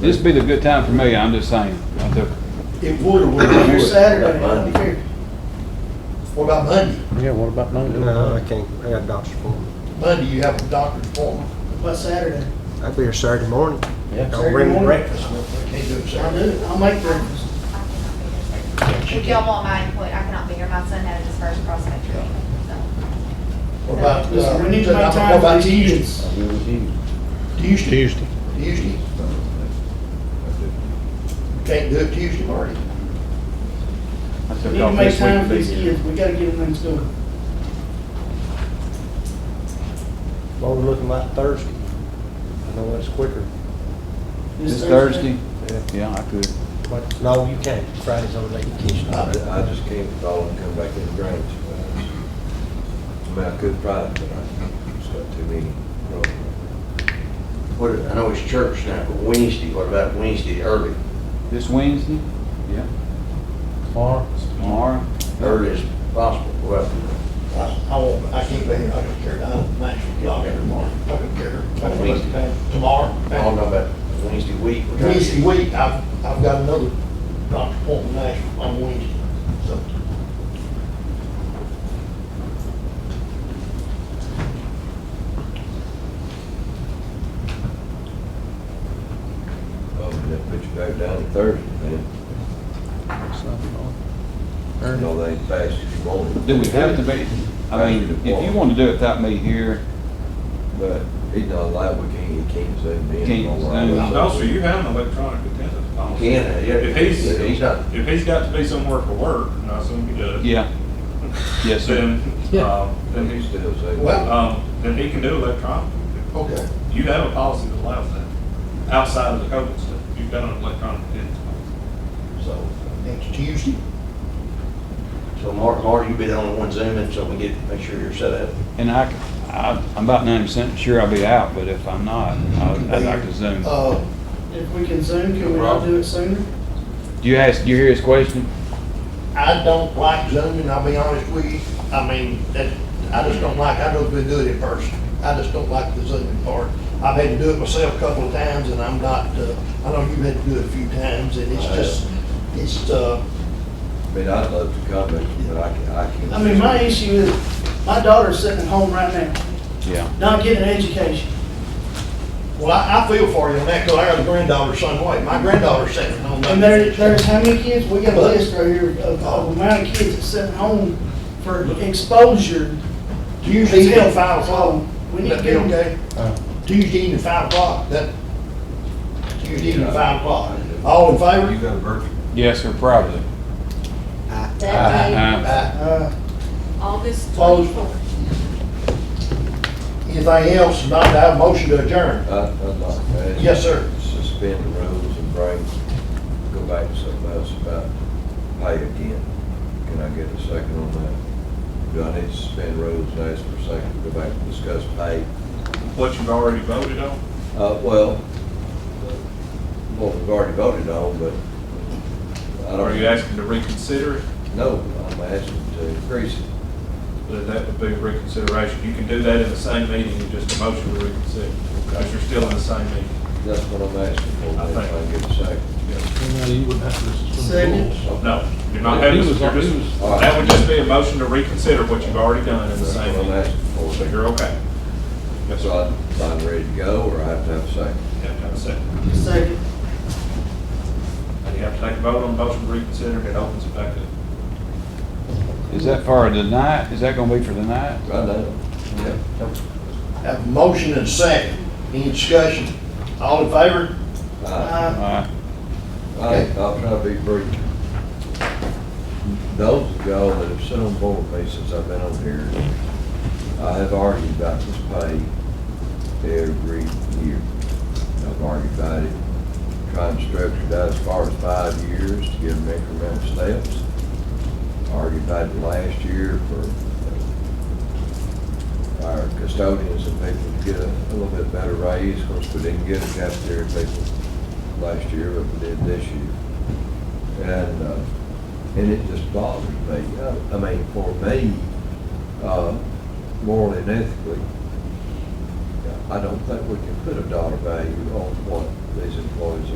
This'd be the good time for me, I'm just saying. I took- It would, or would it be here Saturday, Monday, here? What about Monday? Yeah, what about Monday? No, I can't, I got a doctor's appointment. Monday, you have a doctor's appointment. By Saturday. I'll be here Saturday morning. Yeah. I'll bring Saturday morning. breakfast. I can't do it I'll do Saturday. it. I'll make breakfast. If y'all want my input, I cannot be here. My son had his first cross country. so. What about, uh, Listen, we need to what make about time for these Tuesday? kids. Tuesday, Tuesday. Tuesday. Can't do it Tuesday, Marty. I We took need to off make this week time to for be these here. kids. We gotta get them things going. What we're looking like Thursday. I know that's quicker, This Thursday? Yeah, I could. but no, you can't. Friday's on the vacation. I, I just can't call and come back in the Grange. I mean, I could Friday, but I just got too many. What, I know it's church now, but Wednesday, what about Wednesday early? This Wednesday? Yeah. Tomorrow. Tomorrow? Early as possible, well, I, I won't, I can't be here, I don't care, I don't match with y'all every morning, I don't care. I don't look at- I don't Tomorrow, know about Wednesday week. We're trying to- Wednesday week, I've, I've got another doctor's appointment Nashville on Wednesday, so. Oh, they put you back down to Thursday, man. You know, they ain't fast as you want it. Do we have to be, I mean, if you want to do it without me here, But he's not allowed, we can't, he can't zoom in. Can't All zoom. right. No, Also, you have an electronic attendance policy. He can, yeah. If he's, Yeah, he's not- if he's got to be somewhere for work, and I assume he does. yeah. Yes, sir. Then, um, then He's he's, still zooming. Well- um, then he can do electronic. Okay. You have a policy that allows that, outside of the COVID stuff, you've got an electronic attendance policy. So, Next Tuesday? so Mark, Mark, you be the only one zooming, so we get, make sure you're set up. And I, c- I, am about ninety percent sure I'll be out, but if I'm not, I- I'd like to zoom. Uh, If we can zoom, can we all do it sooner? Do you ask, do you hear his question? I don't like zooming, I'll be honest with you. I mean, that, I just don't like, I don't do it in person. I just don't like the zooming part. I've had to do it myself a couple of times and I'm not, uh, I know you've had to do it a few times and it's I have. just, it's, uh, I mean, I'd love to come, but I can't, I can't. I mean, my issue is, my daughter's sitting at home right now, Yeah. not getting an education. well, I, I feel for you on that, 'cause I got a granddaughter some way. My granddaughter's sitting on that. And there, there's how many kids, we got a list right here of of the amount of kids that's sitting home for exposure Tuesday evening until at five o'clock. We need to That'd be get them. okay? Uh, Tuesday evening at five o'clock, that, Tuesday evening at five o'clock. You All in favor? got a birthday? Yes, sir, probably. That Uh-huh. day, Aye. Uh, August Close. twenty-fourth. Anything else, not to have a motion to adjourn? I, I'd like to. ask- Yes, sir. Suspend the rules and bring, go back to something else about pay again. Can I get a second on that? Do I need to suspend rules and ask for a second, to go back and discuss pay? What you've already voted on, Uh, well, well, we've already voted on, but I don't. or are you asking to reconsider it? No, I'm asking to increase it. Then that would be reconsideration. You can do that in the same meeting, just a motion to reconsider, because you're still in the same meeting. That's what I'm asking for, I if I can get a second. second, No, you're not He having, was- you're he was- just, that would just be a motion to reconsider what you've already done in the That's what same I'm meeting. asking for. So you're okay. Yes, So sir. I'm, I'm ready to go, or I have to have a second? You have to have a second. second. And you have to take a vote on the motion to reconsider, and it opens it back up. Is that for tonight? Is that gonna be for tonight? Right now. Yeah. Have a motion and a second. Any discussion? All in favor? Aye. Uh, Uh, I, I'll try to be brief. Those of y'all that have sat on board with me since I've been on here, I have argued about this pay every year. I've argued about it, trying to structure that as far as five years to give them incremental steps. Argued about it last year for uh, our custodians and people to get a a little bit better raise, of course, we didn't get a cafeteria people last year, but we did this year. And, uh, and it just bothers me. I I mean, for me, uh, morally and ethically, I don't think we can put a dollar value on what these employees are